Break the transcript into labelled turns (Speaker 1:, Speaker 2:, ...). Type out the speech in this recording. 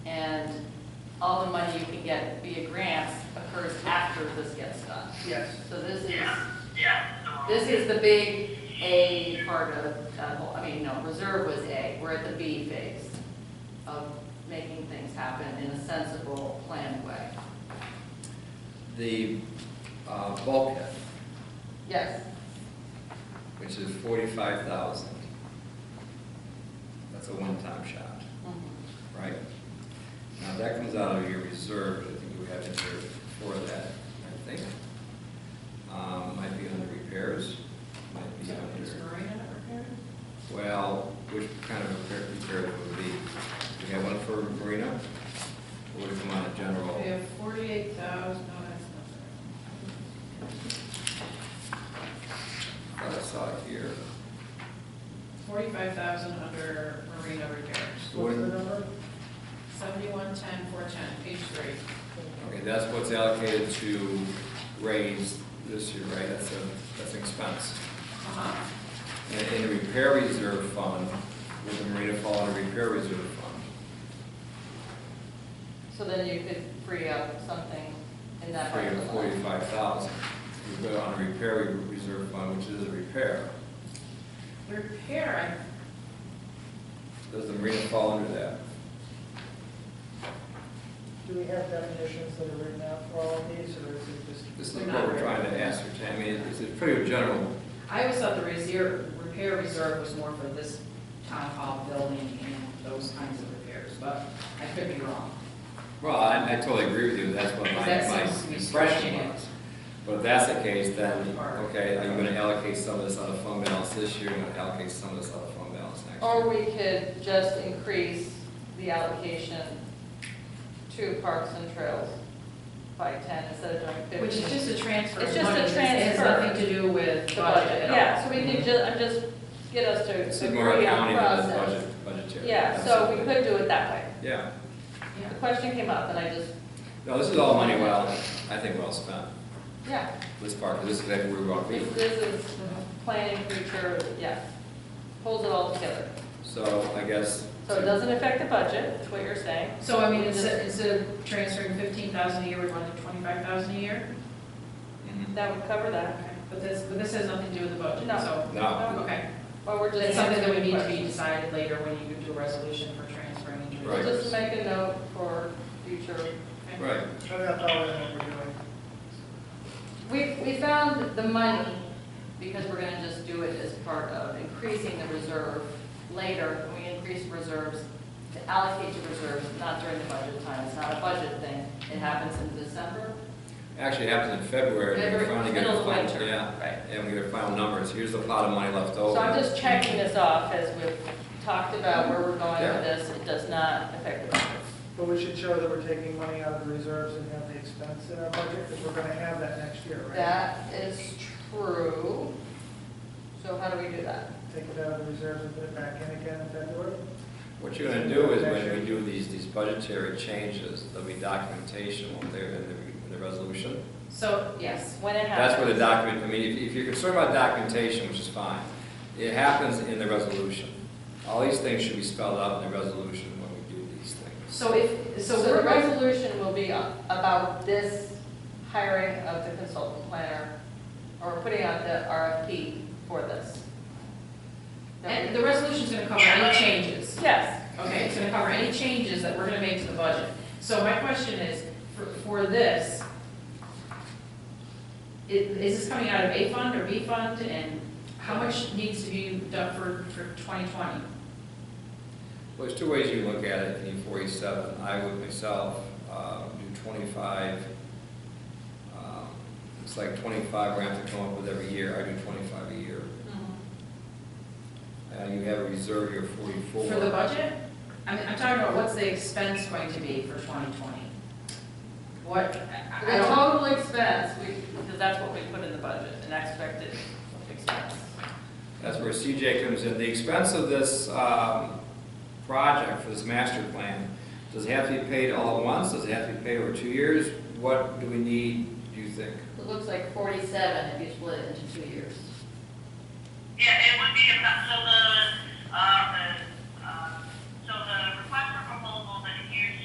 Speaker 1: and all the money you can get via grants occurs after this gets done.
Speaker 2: Yes.
Speaker 1: So this is,
Speaker 3: Yeah, yeah. no.
Speaker 1: this is the big A part of that whole, I mean, no, reserve was A, we're at the B phase of making things happen in a sensible, planned way.
Speaker 4: The uh, bulkhead,
Speaker 1: Yes,
Speaker 4: which is forty-five thousand, that's a one-time shot,
Speaker 1: Mhm.
Speaker 4: right? Now, that comes out of your reserve, I think you have in there for that, I think. Um, Might be under repairs, might be under,
Speaker 1: Restoring and repairing?
Speaker 4: well, which kind of repair, repair would be? We have one for marina, or would it come out of general?
Speaker 2: We have forty-eight thousand, no, that's not
Speaker 4: I thought I saw it here.
Speaker 2: Forty-five thousand under marina repairs.
Speaker 4: What-
Speaker 2: Seventy-one, ten, four, ten, page three.
Speaker 4: Okay, that's what's allocated to raise this year, right? That's a, that's an expense.
Speaker 2: Uh-huh.
Speaker 4: And in the repair reserve fund, would the marina fall under repair reserve fund?
Speaker 1: So then you could free up something in that part
Speaker 4: Three
Speaker 1: of
Speaker 4: or
Speaker 1: the line.
Speaker 4: forty-five thousand. You put it on a repair re- reserve fund, which is a repair.
Speaker 2: Repair,
Speaker 4: Does the marina fall under that?
Speaker 5: Do we have definitions that are written out for all of these, or is it just?
Speaker 4: This is what we're trying to ascertain. I mean, it's it's pretty general.
Speaker 6: I always thought the reserve, repair reserve was more for this town hall building and those kinds of repairs, but I could be wrong.
Speaker 4: Well, I, I totally agree with you, that's what my,
Speaker 6: That
Speaker 4: my
Speaker 6: seems to be
Speaker 4: impression
Speaker 6: stretching it.
Speaker 4: was. But if that's the case, then,
Speaker 6: Or-
Speaker 4: okay, are you gonna allocate some of this out of fund balance this year, and allocate some of this out of fund balance next year?
Speaker 1: Or we could just increase the allocation to parks and trails by ten instead of doing fifteen.
Speaker 6: Which is just a transfer. of
Speaker 1: It's just a
Speaker 6: money. It has
Speaker 1: transfer.
Speaker 6: nothing to do with budget
Speaker 1: The budget,
Speaker 6: at all.
Speaker 1: yeah, so we could ju, I'm just, get us to
Speaker 4: It's more
Speaker 1: agree on
Speaker 4: accounting than the
Speaker 1: process.
Speaker 4: budget, budgetary.
Speaker 1: Yeah, so we
Speaker 4: Absolutely.
Speaker 1: could do it that way.
Speaker 4: Yeah,
Speaker 1: The question came up and I just,
Speaker 4: no, this is all money well, I think well spent,
Speaker 1: yeah,
Speaker 4: this part, 'cause this is exactly where we want to be.
Speaker 1: this, this is planning future, yes, holds it all together.
Speaker 4: So I guess.
Speaker 1: So it doesn't affect the budget, is what you're saying.
Speaker 2: I, so I mean, instead, instead of transferring fifteen thousand a year, we want to twenty-five thousand a year?
Speaker 4: Mhm.
Speaker 1: That would cover that.
Speaker 2: Okay, but this, but this has nothing to do with the budget,
Speaker 1: No.
Speaker 2: so,
Speaker 4: No,
Speaker 2: okay.
Speaker 1: Or we're just.
Speaker 2: That's something that would need to be
Speaker 1: answering
Speaker 2: decided later when you do a resolution for transferring into.
Speaker 4: Right.
Speaker 1: questions. Just make a note for future.
Speaker 2: Okay.
Speaker 4: right,
Speaker 5: So that's all we're doing.
Speaker 1: We, we found the money because we're gonna just do it as part of increasing the reserve later. We increase reserves to allocate to reserves, not during the budget time. It's not a budget thing. It happens in December.
Speaker 4: actually it happens in February, and we
Speaker 1: February,
Speaker 4: finally get
Speaker 1: middle
Speaker 4: the
Speaker 1: of
Speaker 4: final,
Speaker 1: winter.
Speaker 4: yeah,
Speaker 1: Right.
Speaker 4: and we get final numbers, here's the pot of money left over.
Speaker 1: So I'm just checking this off as we've talked about where we're going with this. It does not affect the budget.
Speaker 5: But we should show that we're taking money out of the reserves and have the expense in our budget, because we're gonna have that next year, right?
Speaker 1: That is true. So how do we do that?
Speaker 5: Take it out of the reserves and put it back in again in February?
Speaker 4: What you're gonna do is when we do these, these budgetary changes, there'll be documentation when they're in the, in the resolution.
Speaker 2: So,
Speaker 1: Yes, when it happens.
Speaker 4: That's where the document, I mean, if, if you're concerned about documentation, which is fine, it happens in the resolution. All these things should be spelled out in the resolution when we do these things.
Speaker 2: so if, so
Speaker 1: So the
Speaker 2: we're going
Speaker 1: resolution will be about this hiring of the consultant planner, or putting out the RFP for this.
Speaker 2: And the resolution's gonna cover any changes,
Speaker 1: Yes,
Speaker 2: okay, it's gonna cover any changes that we're gonna make to the budget. So my question is, for, for this, i- is this coming out of A fund or B fund, and how much needs to be done for, for twenty twenty?
Speaker 4: Well, there's two ways you can look at it, in four eighty-seven, I would myself, uh, do twenty-five, um, it's like twenty-five we have to come up with every year, I do twenty-five a year. Uh, you have a reserve here of forty-four.
Speaker 2: For the budget? I'm, I'm talking about what's the expense going to be for twenty twenty? What, I- I
Speaker 1: the
Speaker 2: don't,
Speaker 1: total expense, we, because that's what we put in the budget, an expected expense.
Speaker 4: That's where CJ comes in. The expense of this um, project, for this master plan, does it have to be paid all at once? Does it have to be paid over two years? What do we need, do you think?
Speaker 1: It looks like forty-seven if you split it into two years.
Speaker 3: Yeah, it would be about, so the, uh,